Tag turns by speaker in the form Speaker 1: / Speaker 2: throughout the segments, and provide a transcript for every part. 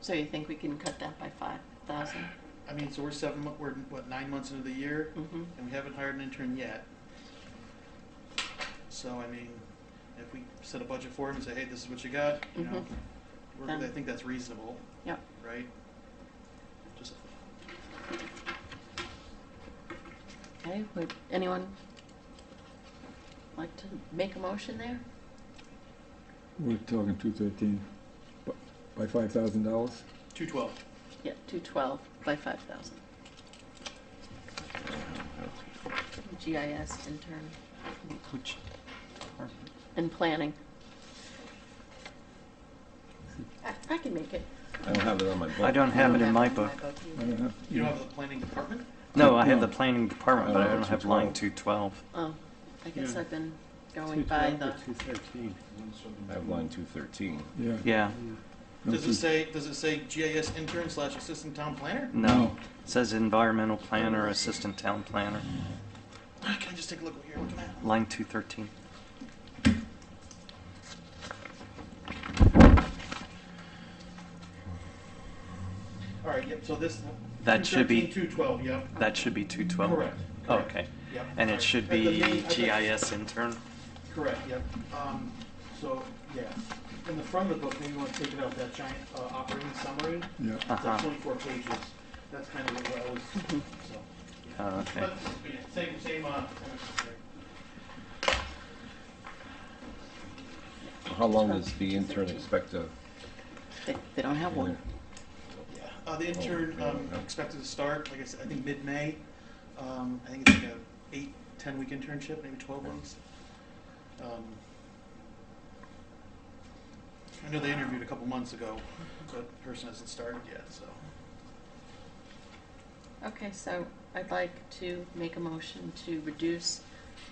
Speaker 1: So you think we can cut that by five thousand?
Speaker 2: I mean, so we're seven, mo- we're, what, nine months into the year,
Speaker 1: Mm-hmm.
Speaker 2: and we haven't hired an intern yet. So, I mean, if we set a budget for him and say, hey, this is what you got, you know,
Speaker 1: Mhm.
Speaker 2: we're-
Speaker 1: Done.
Speaker 2: I think that's reasonable.
Speaker 1: Yep.
Speaker 2: Right? Just,
Speaker 1: Okay, would anyone like to make a motion there?
Speaker 3: We're talking two thirteen, by five thousand dollars?
Speaker 2: two twelve.
Speaker 1: Yeah, two twelve by five thousand. GIS intern
Speaker 2: Which,
Speaker 1: and planning. I, I can make it.
Speaker 4: I don't have it on my
Speaker 5: I
Speaker 4: book.
Speaker 5: don't have it in my book. Hmm.
Speaker 3: I don't know.
Speaker 2: you don't have the planning department?
Speaker 5: No, I have the planning department, but I
Speaker 4: Oh,
Speaker 5: don't have line 212.
Speaker 1: Oh, I guess
Speaker 6: Yeah.
Speaker 1: I've been going by the,
Speaker 6: Two thirteen.
Speaker 4: I have line two thirteen.
Speaker 3: Yeah.
Speaker 5: Yeah,
Speaker 3: no,
Speaker 2: Does
Speaker 3: two-
Speaker 2: it say, does it say GIS intern slash assistant town planner?
Speaker 5: no. It says environmental planner, assistant town planner,
Speaker 2: Ah, Can I just take a look what you're looking at?
Speaker 5: line 213.
Speaker 2: All right, yep, so this.
Speaker 5: That should be-
Speaker 2: Two twelve, yep,
Speaker 5: That should be 212.
Speaker 2: correct.
Speaker 5: Oh,
Speaker 2: correct,
Speaker 5: okay.
Speaker 2: Yep.
Speaker 5: And
Speaker 2: Sorry.
Speaker 5: it should
Speaker 2: At the
Speaker 5: be
Speaker 2: main- at the-
Speaker 5: GIS intern.
Speaker 2: Correct, yep. Um, so, yeah, in the front of the book, maybe you want to take it out, that giant uh, operating summary,
Speaker 3: Yeah,
Speaker 2: it's
Speaker 5: Uh-huh.
Speaker 2: like twenty-four pages. That's kind of what I was, so.
Speaker 5: Oh, okay.
Speaker 2: But, but yeah, same, same, uh.
Speaker 4: How long does the intern expect to?
Speaker 1: they, they don't have one.
Speaker 2: yeah. Uh, the intern,
Speaker 4: Oh,
Speaker 2: um,
Speaker 4: yeah.
Speaker 2: expected to start, like I said, I think mid-May. Um, I think it's like a eight, ten-week internship, maybe twelve
Speaker 4: Yeah.
Speaker 2: weeks. Um, I know they interviewed a couple months ago, but the person hasn't started yet, so.
Speaker 1: Okay, so I'd like to make a motion to reduce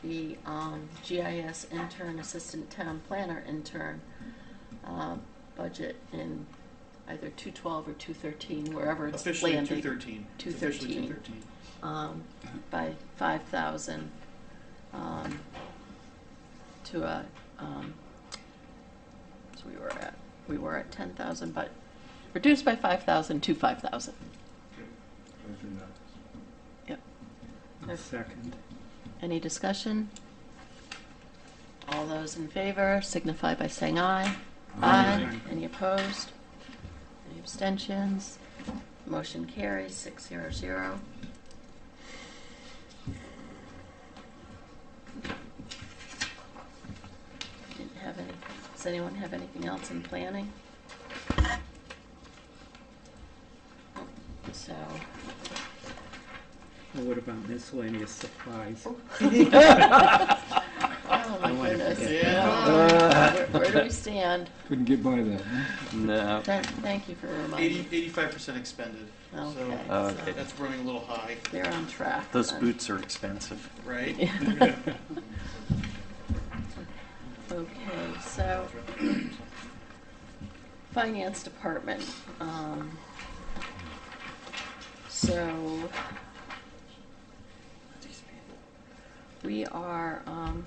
Speaker 1: the um, GIS intern, assistant town planner intern uh, budget in either 212 or 213, wherever it's
Speaker 2: Officially two
Speaker 1: landing,
Speaker 2: thirteen.
Speaker 1: 213.
Speaker 2: Two thirteen.
Speaker 1: um, by 5,000 um, to a, um, so we were at, we were at 10,000, but reduced by 5,000 to 5,000. Yep.
Speaker 6: Second.
Speaker 1: Any discussion? All those in favor signify by saying aye. Aye. Any opposed? Any abstentions? Motion carries six zero zero. Didn't have any, does anyone have anything else in planning? So,
Speaker 6: Well, what about miscellaneous supplies?
Speaker 1: oh my
Speaker 6: I wanna
Speaker 1: goodness.
Speaker 6: forget
Speaker 1: Oh, Where where do we stand?
Speaker 3: couldn't get by that, huh?
Speaker 5: No.
Speaker 1: Thank, thank you for reminding.
Speaker 2: Eighty,
Speaker 1: me.
Speaker 2: eighty-five percent expended.
Speaker 1: Okay.
Speaker 2: So
Speaker 5: Ah, Okay.
Speaker 2: that's running a little high,
Speaker 1: They're on track.
Speaker 5: Those
Speaker 1: then.
Speaker 5: boots are expensive.
Speaker 2: right?
Speaker 1: Okay, so finance department, um, so we are, um,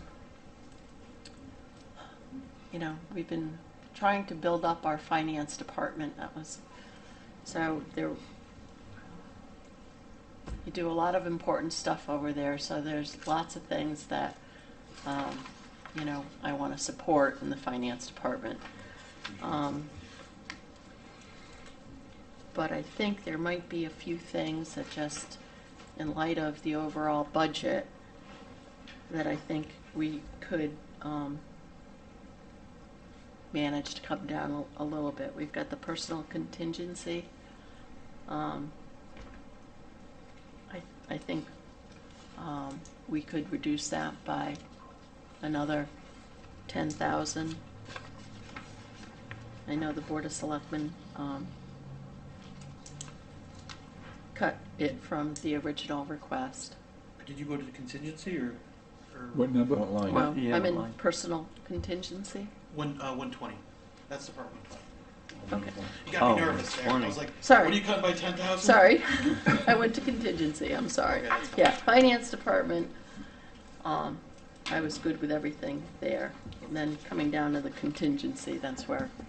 Speaker 1: you know, we've been trying to build up our finance department. That was, so there, you do a lot of important stuff over there, so there's lots of things that, um, you know, I want to support in the finance department. Um, But I think there might be a few things that just, in light of the overall budget, that I think we could um, manage to come down a a little bit. We've got the personal contingency. Um, I, I think um, we could reduce that by another ten thousand. I know the Board of Selectmen, um, cut it from the original request.
Speaker 2: Did you go to the contingency or, or
Speaker 3: What number?
Speaker 4: What line?
Speaker 1: Well,
Speaker 5: yeah,
Speaker 1: I'm in
Speaker 5: mine.
Speaker 1: personal contingency.
Speaker 2: one, uh, one twenty? That's the part one twenty.
Speaker 1: Okay,
Speaker 2: You got me
Speaker 5: Oh,
Speaker 2: nervous there. I was
Speaker 5: 120.
Speaker 2: like,
Speaker 1: Sorry.
Speaker 2: What are you cutting by ten thousand?
Speaker 1: sorry, I went to contingency, I'm sorry.
Speaker 2: Okay, that's fine.
Speaker 1: Yeah, Finance Department, um, I was good with everything there. And then coming down to the contingency, that's where